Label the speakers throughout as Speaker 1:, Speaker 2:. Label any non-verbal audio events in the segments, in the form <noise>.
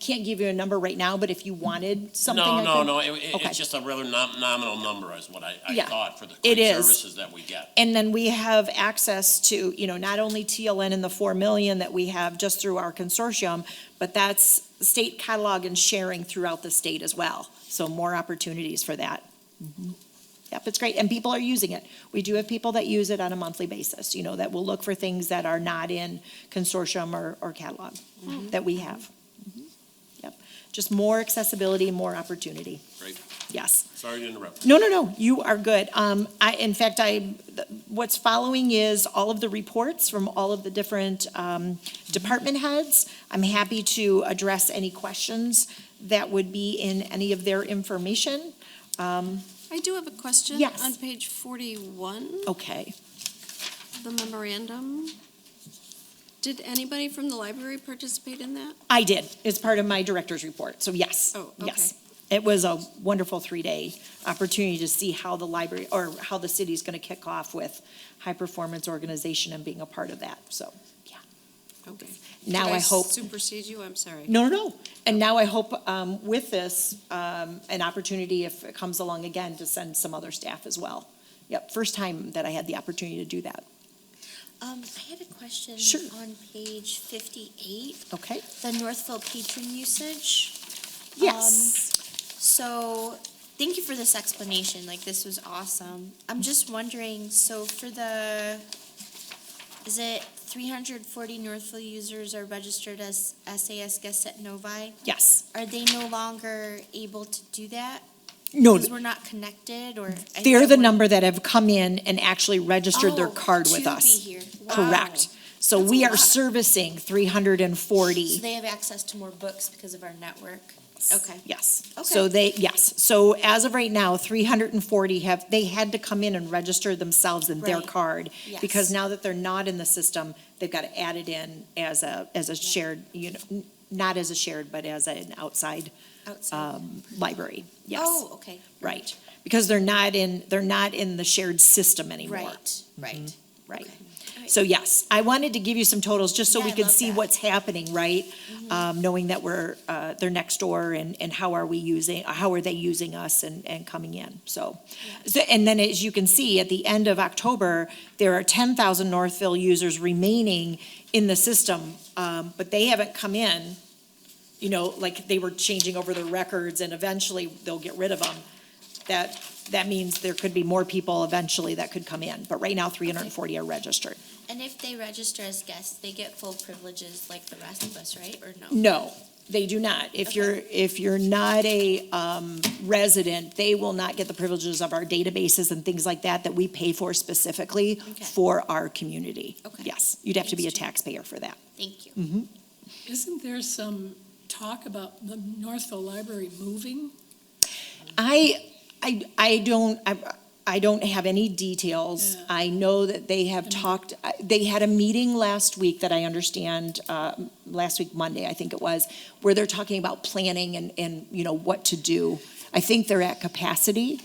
Speaker 1: can't give you a number right now, but if you wanted something.
Speaker 2: No,
Speaker 1: I
Speaker 2: no,
Speaker 1: could-
Speaker 2: no, it- it-
Speaker 1: Okay.
Speaker 2: it's just a rather nom- nominal number is what I, I
Speaker 1: Yeah.
Speaker 2: thought for the
Speaker 1: It
Speaker 2: great
Speaker 1: is.
Speaker 2: services that we get.
Speaker 1: And then we have access to, you know, not only TLN and the four million that we have just through our consortium, but that's state catalog and sharing throughout the state as well. So more opportunities for that. Yep, it's great, and people are using it. We do have people that use it on a monthly basis, you know, that will look for things that are not in consortium or, or catalog that we have. Mhm. Yep, just more accessibility, more opportunity,
Speaker 2: Great,
Speaker 1: yes.
Speaker 2: sorry to interrupt.
Speaker 1: No, no, no, you are good. Um, I, in fact, I, th- what's following is all of the reports from all of the different, um, department heads. I'm happy to address any questions that would be in any of their information.
Speaker 3: I do have a question.
Speaker 1: Yes.
Speaker 3: On page forty-one,
Speaker 1: Okay,
Speaker 3: the memorandum. Did anybody from the library participate in that?
Speaker 1: I did. It's part of my director's report, so yes,
Speaker 3: Oh, okay.
Speaker 1: yes. It was a wonderful three-day opportunity to see how the library, or how the city's gonna kick off with high-performance organization and being a part of that, so, yeah.
Speaker 3: Okay.
Speaker 1: Now
Speaker 3: Did
Speaker 1: I hope.
Speaker 3: Supersede you, I'm sorry.
Speaker 1: No, no, no. And now I hope um, with this, um, an opportunity, if it comes along again, to send some other staff as well. Yep, first time that I had the opportunity to do that.
Speaker 4: Um, I had a question.
Speaker 1: Sure.
Speaker 4: On page fifty-eight,
Speaker 1: Okay?
Speaker 4: the Northfield patron usage.
Speaker 1: Yes.
Speaker 4: So, thank you for this explanation, like, this was awesome. I'm just wondering, so for the, is it three hundred forty Northfield users are registered as SAS guests at Novi?
Speaker 1: Yes.
Speaker 4: Are they no longer able to do that?
Speaker 1: No,
Speaker 4: Because we're not connected, or? I
Speaker 1: they're
Speaker 4: don't
Speaker 1: the
Speaker 4: wanna-
Speaker 1: number that have come in and actually registered their
Speaker 4: Oh,
Speaker 1: card with
Speaker 4: to be
Speaker 1: us.
Speaker 4: here.
Speaker 1: Correct.
Speaker 4: Wow.
Speaker 1: So
Speaker 4: That's a
Speaker 1: we are
Speaker 4: lot.
Speaker 1: servicing three hundred and
Speaker 4: So
Speaker 1: forty.
Speaker 4: they have access to more books because of our network? Okay.
Speaker 1: Yes.
Speaker 4: Okay.
Speaker 1: So they, yes. So as of right now, three hundred and forty have, they had to come in and register themselves in their
Speaker 4: Right.
Speaker 1: card. Because
Speaker 4: Yes.
Speaker 1: now that they're not in the system, they've got to add it in as a, as a shared, you know, n- not as a shared, but as an outside,
Speaker 4: Outside.
Speaker 1: um, library. Yes,
Speaker 4: Oh, okay.
Speaker 1: right. Because they're not in, they're not in the shared system anymore.
Speaker 4: Right, Mm-hmm. right.
Speaker 1: Right.
Speaker 4: Alright.
Speaker 1: So yes, I wanted to give you some totals just so
Speaker 4: Yeah,
Speaker 1: we
Speaker 4: I
Speaker 1: could
Speaker 4: love
Speaker 1: see
Speaker 4: that. Mm-hmm.
Speaker 1: what's happening, right? Um, knowing that we're, uh, they're next door and, and how are we using, how are they using us and, and coming in, so. So, and then as you can see, at the end of October, there are ten thousand Northville users remaining in the system, um, but they haven't come in. You know, like they were changing over their records and eventually they'll get rid of them. That, that means there could be more people eventually that could come in, but right now, three hundred and forty are registered.
Speaker 4: And if they register as guests, they get full privileges like the rest of us, right? Or no?
Speaker 1: No, they do not. If you're, if you're not a um, resident, they will not get the privileges of our databases and things like that that we pay for specifically
Speaker 4: Okay.
Speaker 1: for our community.
Speaker 4: Okay.
Speaker 1: Yes, you'd have to be a
Speaker 4: Thanks, Jen.
Speaker 1: taxpayer for that.
Speaker 4: Thank you.
Speaker 5: Isn't there some talk about the Northville Library moving?
Speaker 1: I, I, I don't, I, I don't have any details.
Speaker 5: Yeah.
Speaker 1: I know that they have talked, I- they had a meeting last week that I understand, uh, last week, Monday, I think it was, where they're talking about planning and, and, you know, what to do. I think they're at capacity,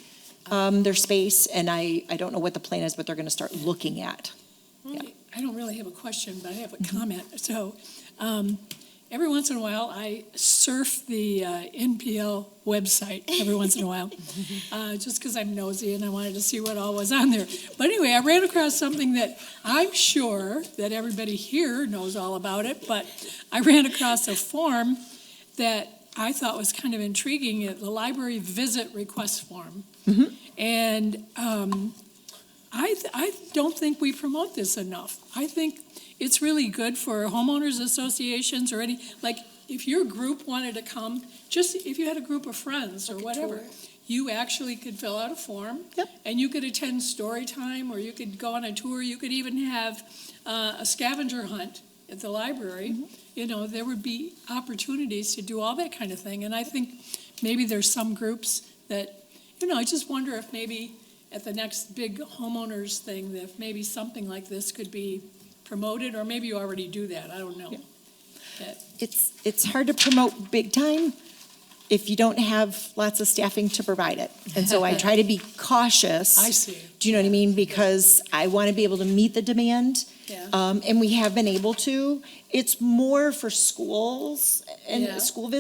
Speaker 1: um, their space, and I, I don't know what the plan is, but they're gonna start looking at. Yeah.
Speaker 5: I don't really have a question, but I have a comment. So, um, every once in a while, I surf the uh, NPL website every once in a while, uh, just because I'm nosy and I wanted to see what all was on there. But anyway, I ran across something that I'm sure that everybody here knows all about it, but I ran across a form that I thought was kind of intriguing, uh, the library visit request form. And um, I, th- I don't think we promote this enough. I think it's really good for homeowners associations or any, like, if your group wanted to come, just if you had a group of friends or whatever, you actually could fill out a form.
Speaker 1: Yep.
Speaker 5: And you could attend story time, or you could go on a tour, you could even have uh, a scavenger hunt at the library. You know, there would be opportunities to do all that kind of thing. And I think maybe there's some groups that, you know, I just wonder if maybe at the next big homeowners thing, that if maybe something like this could be promoted, or maybe you already do that, I don't know.
Speaker 1: Yeah. It's, it's hard to promote big time if you don't have lots of staffing to provide it. And so I try to
Speaker 5: <laughs>
Speaker 1: be cautious.
Speaker 5: I see.
Speaker 1: Do you know what I mean? Because I want to be able to meet the demand.
Speaker 5: Yeah.
Speaker 1: Um, and we have been able to. It's more for schools and
Speaker 5: Yeah.
Speaker 1: school visits.